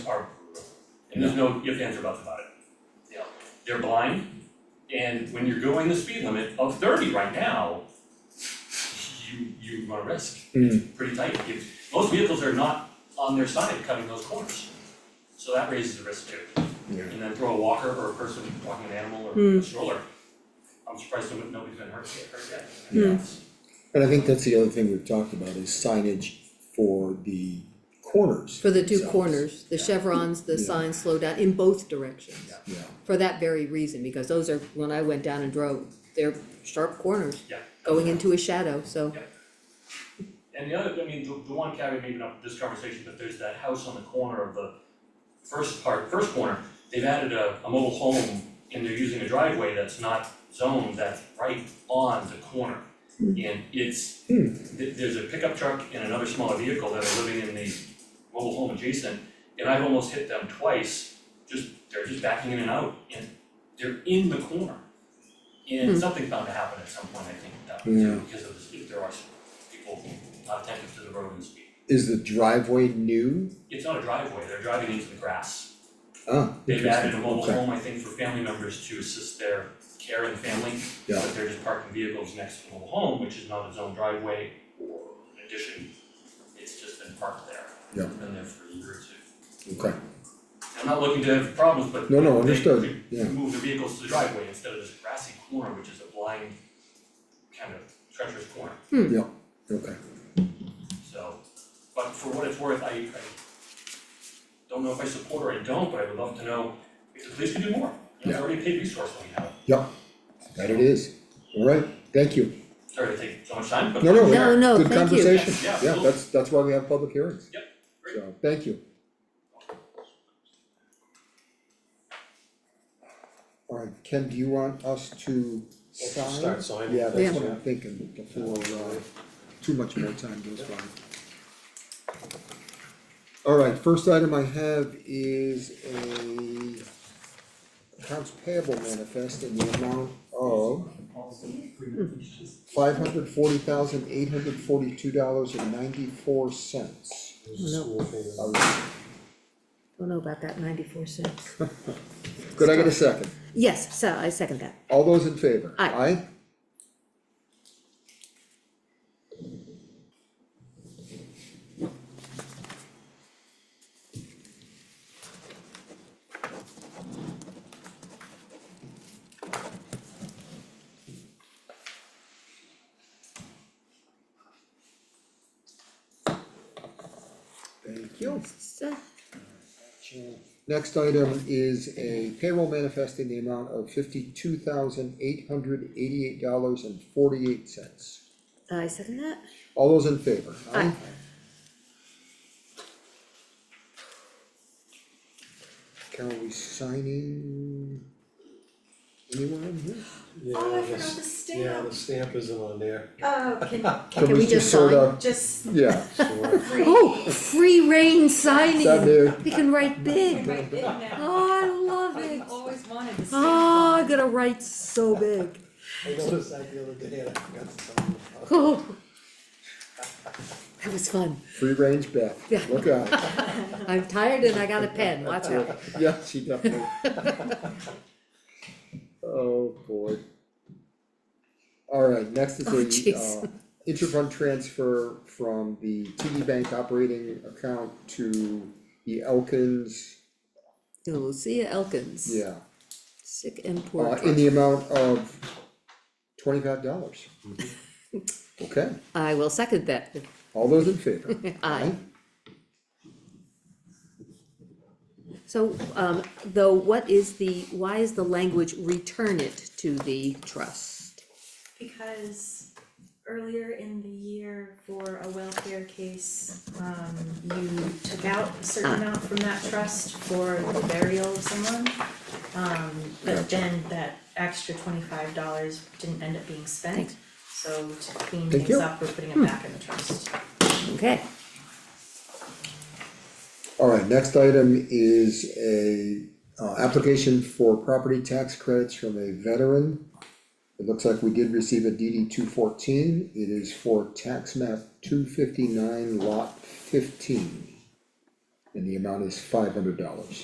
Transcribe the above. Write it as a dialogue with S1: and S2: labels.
S1: are brutal. And there's no ifs, ands, or buts about it.
S2: Yeah.
S1: They're blind, and when you're going the speed limit of thirty right now, you, you run a risk. It's Pretty tight, If- most vehicles are not on their side cutting those corners. So that raises a risk too.
S3: Yeah.
S1: And then throw a walker or a person walking an animal or a stroller. I'm surprised nobody- nobody's been hurt yet, hurt yet.
S3: And I think that's the other thing we've talked about is signage for the corners.
S4: For the two
S3: themselves.
S4: corners, the
S1: Yeah.
S4: chevrons, the
S3: Yeah.
S4: signs slow down in both directions.
S1: Yeah.
S3: Yeah,
S4: For that very reason, because those are, when I went down and drove, they're sharp corners.
S1: Yeah.
S4: Going into a shadow, so,
S1: Yeah. And the other, I mean, the the one caveat, maybe not this conversation, but there's that house on the corner of the first part, first corner, they've added a a mobile home and they're using a driveway that's not zoned, that's right on the corner. And it's,
S3: Hmm.
S1: th- there's a pickup truck and another smaller vehicle that are living in the mobile home adjacent, and I've almost hit them twice, just, they're just backing in and out, and they're in the corner. And
S4: Hmm.
S1: something's bound to happen at some point, I think, that too,
S3: Yeah.
S1: because of the speed, there are some people not attentive to the road and speed.
S3: is the driveway new?
S1: It's not a driveway, they're driving into the grass.
S3: Ah,
S1: They've added a mobile
S3: interesting. Okay.
S1: home, I think, for family members to assist their care and family.
S3: Yeah.
S1: But they're just parking vehicles next to the mobile home, which is not its own driveway or an addition. It's just been parked there.
S3: Yeah.
S1: It's Been there for a year or two.
S3: Okay,
S1: I'm not looking to have problems, but
S3: no, no,
S1: they-
S3: understood, yeah,
S1: to move the vehicles to the driveway instead of this grassy corner, which is a blind, kind of treacherous corner,
S3: okay,
S1: so. But for what it's worth, I, I don't know if I support or I don't, but I would love to know if the police can do more. You know, It's
S3: Yeah.
S1: already a paid resource that we have,
S3: that it is, alright, thank you,
S1: sorry to take so much time, but.
S3: no, no,
S4: No, no,
S3: good
S4: thank you.
S3: conversation,
S1: Yes, yeah,
S3: yeah,
S1: absolutely.
S3: that's, that's why we have public hearings.
S1: Yep, great.
S3: So, thank you. Alright, Ken, do you want us to sign?
S5: Start signing.
S3: Yeah,
S4: Yeah.
S3: that's what I'm thinking, before, uh, too much more time goes by. Alright, first item I have is a accounts payable manifest in the amount of five hundred forty thousand, eight hundred forty-two dollars and ninety-four cents.
S5: There's a school payment.
S4: Oh, don't know about that ninety-four cents.
S3: Could I get a second?
S4: Yes, so I second that.
S3: All those in favor?
S4: Aye.
S3: Aye? Thank you.
S4: So,
S3: Next item is a payroll manifest in the amount of fifty-two thousand eight hundred eighty-eight dollars and forty-eight cents.
S4: I second that.
S3: All those in favor?
S4: Aye.
S3: Carol, we signing anywhere in here?
S5: Yeah,
S6: Oh, I
S5: the
S6: forgot
S5: s-
S6: the
S5: Yeah,
S6: stamp.
S5: the stamp isn't on there,
S6: Oh, can,
S3: Can we
S4: just
S3: sort
S4: sign?
S3: of-
S6: just
S3: Yeah,
S5: sure.
S6: free.
S4: Oh, free reign
S3: that
S4: signing.
S3: there,
S4: We can write big.
S6: Right there now.
S4: Oh, I love
S6: I've
S4: it.
S6: always wanted to see.
S4: Oh, I'm gonna write so big.
S5: I noticed that the other day and I forgot to tell you about it.
S4: Oh. That was fun.
S3: free range Beth,
S4: Yeah.
S3: look out,
S4: I'm tired and I got a pen, watch out.
S3: yeah, she definitely. Oh, boy. Alright, next
S4: Oh,
S3: is a,
S4: jeez.
S3: uh, interfund transfer from the TD Bank operating account to the Elkins,
S4: Lucia Elkins.
S3: yeah.
S4: Sick and poor.
S3: Uh, in the amount of twenty-five dollars. Okay,
S4: I will second that.
S3: all those in favor?
S4: Aye. So, um, though, what is the, why is the language return it to the trust?
S6: Because earlier in the year for a welfare case, um, you took out a
S4: Ah.
S6: certain amount from that trust for the burial of someone. Um, but then that extra twenty-five dollars didn't end up being spent. So to clean
S3: Thank
S6: things
S3: you.
S6: up, we're putting
S4: Hmm.
S6: it back in the trust.
S4: Okay,
S3: Alright, next item is a, uh, application for property tax credits from a veteran. It looks like we did receive a DD two fourteen, it is for tax map two fifty-nine lot fifteen. And the amount is five hundred dollars.